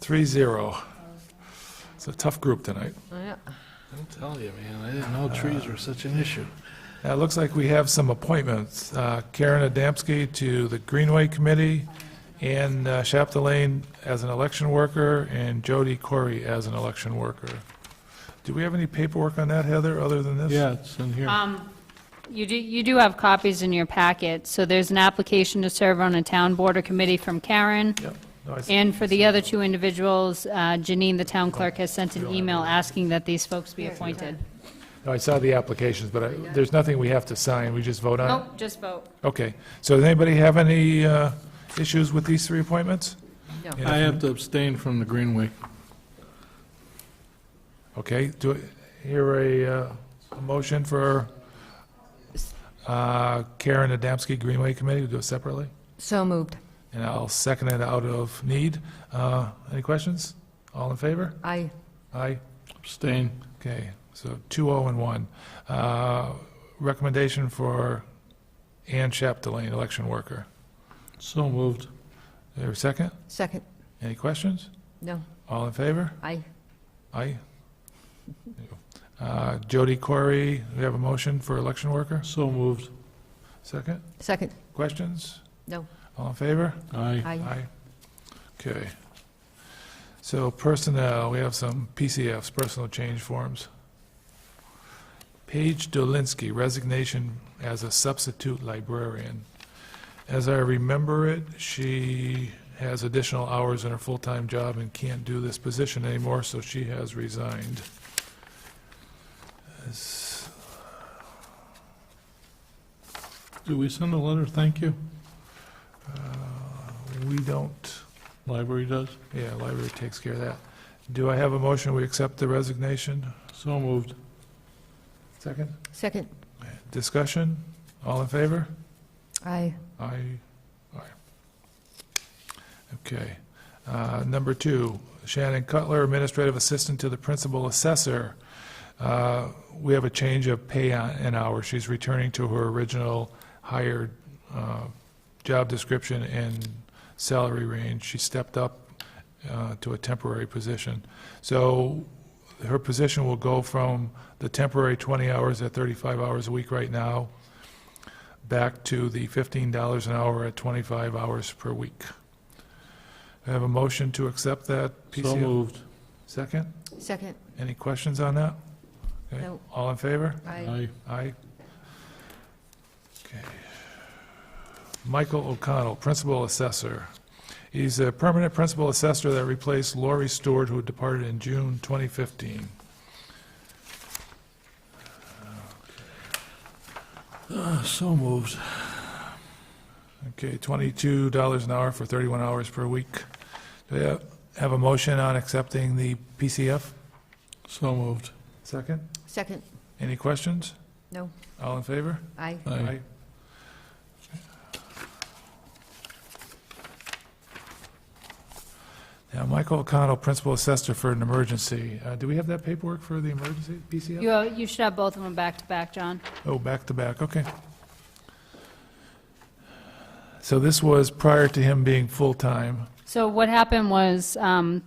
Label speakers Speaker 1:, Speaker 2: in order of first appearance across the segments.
Speaker 1: Three zero. It's a tough group tonight.
Speaker 2: Yeah.
Speaker 3: I'm telling you, man, I didn't know trees were such an issue.
Speaker 1: Uh, It looks like we have some appointments. Uh, Karen Adamski to the Greenway Committee, Ann uh, Chapdelaine as an election worker, and Jody Corey as an election worker. Do we have any paperwork on that, Heather, other than this?
Speaker 3: Yeah, it's in here.
Speaker 4: You do, you do have copies in your packet, so there's an application to serve on a town board or committee from Karen.
Speaker 1: Yep. No, I see.
Speaker 4: And for the other two individuals, uh, Janine, the town clerk, has sent an email asking that these folks be appointed.
Speaker 1: No, I saw the applications, but I- there's nothing we have to sign. We just vote on it?
Speaker 4: Nope, Oh, just vote.
Speaker 1: Okay, so does anybody have any uh, issues with these three appointments?
Speaker 2: No.
Speaker 1: And if-
Speaker 3: I have to abstain from the Greenway.
Speaker 1: Okay, do, I hear a, uh, a motion for uh, Karen Adamski, Greenway Committee, we'll do it separately,
Speaker 2: So moved.
Speaker 1: and I'll second it out of need. Uh, Any questions? All in favor?
Speaker 2: I,
Speaker 1: Aye.
Speaker 3: Abstain.
Speaker 1: Okay, so two oh and one. Uh, Recommendation for Ann Chapdelaine, election worker.
Speaker 3: So moved.
Speaker 1: Is there a second?
Speaker 2: second,
Speaker 1: Any questions?
Speaker 2: no,
Speaker 1: All in favor?
Speaker 2: I,
Speaker 1: Aye. Uh, Jody Corey, we have a motion for election worker,
Speaker 3: So moved.
Speaker 1: second.
Speaker 2: second,
Speaker 1: Questions?
Speaker 2: no,
Speaker 1: All in favor?
Speaker 3: Aye.
Speaker 2: I,
Speaker 1: Okay. So personnel, we have some PCFs, personal change forms. Paige Dolinsky, resignation as a substitute librarian. As I remember it, she has additional hours in her full-time job and can't do this position anymore, so she has resigned. Is-
Speaker 3: Do we send a letter, thank you?
Speaker 1: We don't,
Speaker 3: Library does.
Speaker 1: yeah, library takes care of that. Do I have a motion, we accept the resignation?
Speaker 3: So moved.
Speaker 1: Second.
Speaker 2: second,
Speaker 1: Discussion? All in favor?
Speaker 2: I,
Speaker 1: Aye. Aye. Okay. Uh, Number two, Shannon Cutler, Administrative Assistant to the Principal Assessor. Uh, We have a change of pay on- an hour. She's returning to her original hired uh, job description and salary range. She stepped up uh, to a temporary position. So her position will go from the temporary 20 hours at 35 hours a week right now back to the $15 an hour at 25 hours per week. I have a motion to accept that
Speaker 3: So
Speaker 1: PCF.
Speaker 3: moved.
Speaker 1: Second?
Speaker 2: second,
Speaker 1: Any questions on that? Okay.
Speaker 2: No.
Speaker 1: All in favor?
Speaker 2: I,
Speaker 3: Aye.
Speaker 1: Aye. Okay. Michael O'Connell, Principal Assessor. He's a permanent Principal Assessor that replaced Lori Stewart, who departed in June 2015.
Speaker 3: Uh, So moved.
Speaker 1: Okay, $22 an hour for 31 hours per week. Do I have- have a motion on accepting the PCF?
Speaker 3: So moved.
Speaker 1: Second.
Speaker 2: second,
Speaker 1: Any questions?
Speaker 2: no,
Speaker 1: All in favor?
Speaker 2: I,
Speaker 3: Aye.
Speaker 1: Now, Michael O'Connell, Principal Assessor for an emergency. Uh, Do we have that paperwork for the emergency PCF?
Speaker 4: You, uh, you should have both of them back to back, John.
Speaker 1: Oh, back to back, okay. So this was prior to him being full-time.
Speaker 4: So what happened was, um,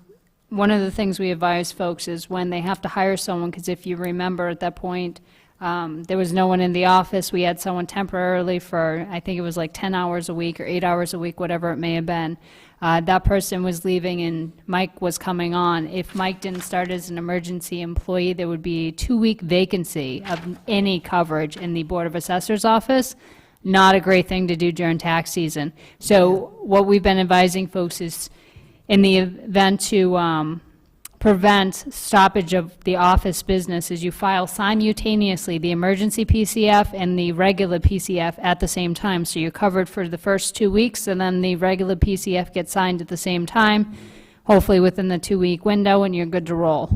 Speaker 4: one of the things we advise folks is when they have to hire someone, because if you remember at that point, um, there was no one in the office. We had someone temporarily for, I think it was like 10 hours a week or eight hours a week, whatever it may have been. Uh, That person was leaving and Mike was coming on. If Mike didn't start as an emergency employee, there would be a two-week vacancy of any coverage in the Board of Assessors office not a great thing to do during tax season. So what we've been advising folks is, in the event to um, prevent stoppage of the office business, is you file simultaneously the emergency PCF and the regular PCF at the same time. So you're covered for the first two weeks, and then the regular PCF gets signed at the same time, hopefully within the two-week window, and you're good to roll.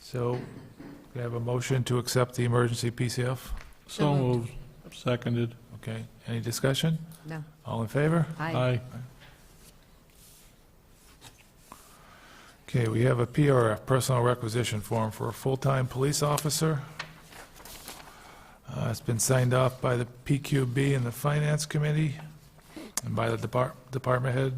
Speaker 1: So we have a motion to accept the emergency PCF.
Speaker 3: So
Speaker 2: So
Speaker 3: moved. Seconded.
Speaker 1: Okay, any discussion?
Speaker 2: no,
Speaker 1: All in favor?
Speaker 2: I,
Speaker 3: Aye.
Speaker 1: Okay, we have a PRF, personal requisition form for a full-time police officer. Uh, It's been signed off by the PQB and the Finance Committee, and by the depart- department head.